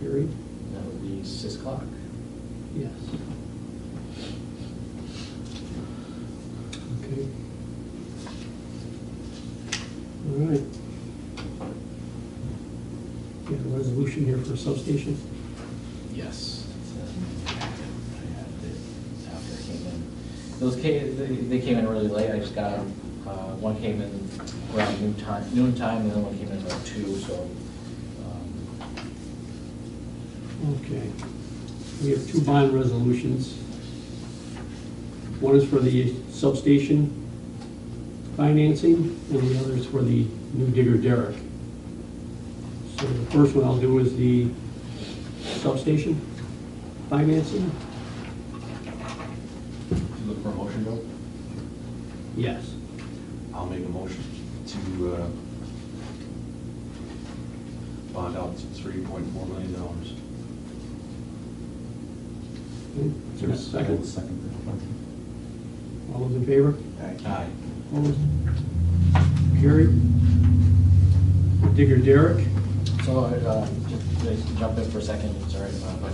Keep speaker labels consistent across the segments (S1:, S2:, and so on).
S1: period?
S2: That would be six o'clock.
S1: Yes. Okay. All right. We have a resolution here for substation.
S2: Yes. I had it After I came in. Those came, they, they came in really late, I just got them. Uh, one came in around noon time, noon time, and then one came in around two, so, um,
S1: Okay. We have two bond resolutions. One is for the substation financing, and the other is for the new digger derrick. So the first one I'll do is the substation financing.
S3: You Look for a motion, Bill?
S1: Yes.
S3: I'll make a motion to uh, bond out three point four million dollars.
S1: Is there a second?
S4: Second.
S1: All those in favor?
S3: Aye.
S1: Opposed? Carried. Digger derrick.
S2: So, uh, just to jump in for a second, sorry, uh, but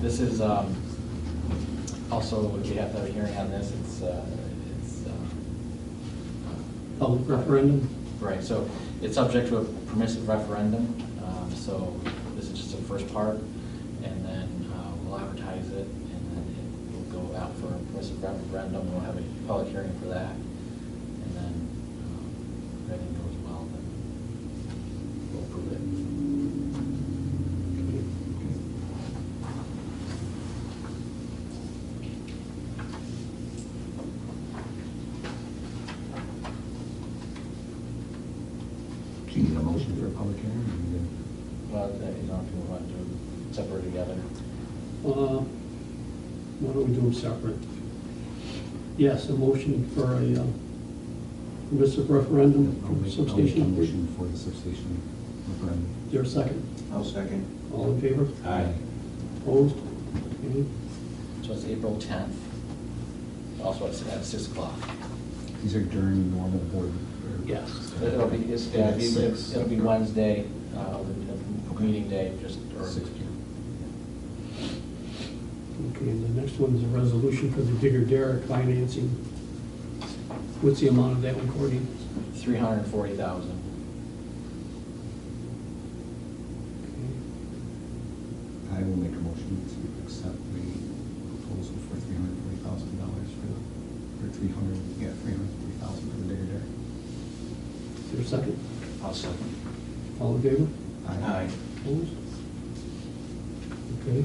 S2: this is, um, also, we have to have a hearing on this, it's, uh, it's, uh,
S1: Public referendum.
S2: right, so it's subject to a permissive referendum, um, so this is just the first part, and then, uh, we'll advertise it, and then it will go out for a permissive referendum, we'll have a public hearing for that, and then, um, if everything goes well, then we'll approve it.
S4: Do you need a motion for a public hearing?
S2: Well, I don't know if you want to do it separate together.
S1: Uh, Why don't we do them separate? Yes, a motion for a uh, permissive referendum
S4: I'll
S1: for
S4: make- I'll make a
S1: substation.
S4: motion for the substation referendum.
S1: Is there a second?
S3: I'll second.
S1: All in favor?
S3: Aye.
S1: Opposed? Okay.
S2: So it's April 10th, also at at 6 o'clock.
S4: These are during normal board. or-
S1: Yes.
S2: It'll be, it's-
S4: Yeah,
S2: it'll be-
S4: six.
S2: it'll be Wednesday, uh, the- the meeting day, just, or,
S4: Six P M.
S1: Okay, and the next one is a resolution for the Digger Derrick financing. What's the amount of that one, Courtney?
S2: 340,000.
S1: Okay.
S4: I will make a motion to accept the proposal for three hundred forty thousand dollars for the, or three hundred, yeah, three hundred forty thousand for the digger derrick.
S1: Is there a second?
S3: I'll second.
S1: All in favor?
S3: Aye.
S1: Opposed? Okay.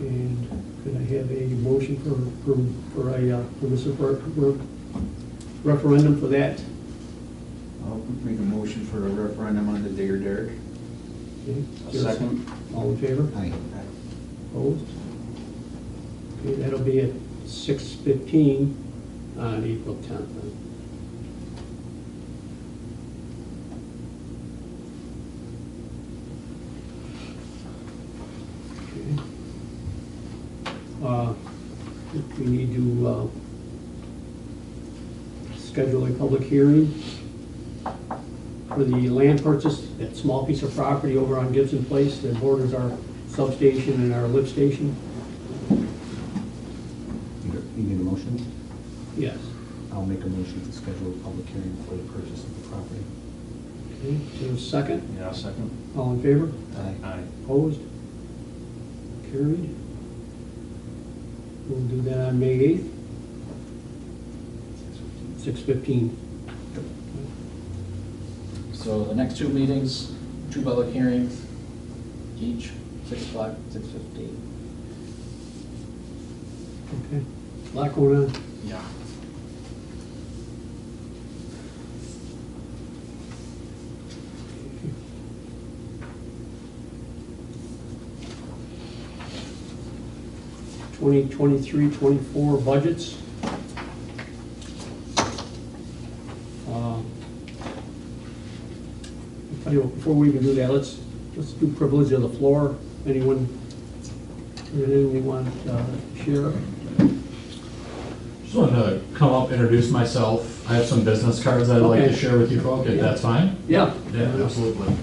S1: And could I have a motion for, for, for a uh, permissive re- re- referendum for that?
S5: I'll make a motion for a referendum on the Digger Derrick.
S1: Okay.
S3: I'll second.
S1: All in favor?
S4: Aye.
S1: Opposed? Okay, that'll be at six fifteen on April tenth. Uh, we need to, uh, schedule a public hearing for the land purchase, that small piece of property over on Gibson Place that borders our substation and our lift station.
S4: You got- you need a motion?
S1: Yes.
S4: I'll make a motion to schedule a public hearing for the purchase of the property.
S1: Okay, is there a second?
S3: Yeah, I'll second.
S1: All in favor?
S4: Aye.
S3: Aye.
S1: Opposed? Carried. We'll do that on May 8th, 6:15.
S2: So the next two meetings, two public hearings, each 6 o'clock, 6:15.
S1: Okay. Lot going on.
S2: Yeah.
S1: Twenty twenty-three, twenty-four budgets. Um, I tell you what, Before we even do that, let's, let's do privilege of the floor. Anyone, anything you want uh, to share?
S6: Just wanted to come up, introduce myself. I have some business cards that I'd like
S1: Okay.
S6: to share with you folks, if
S1: Yeah.
S6: that's fine.
S1: Yeah.
S6: Yeah, absolutely.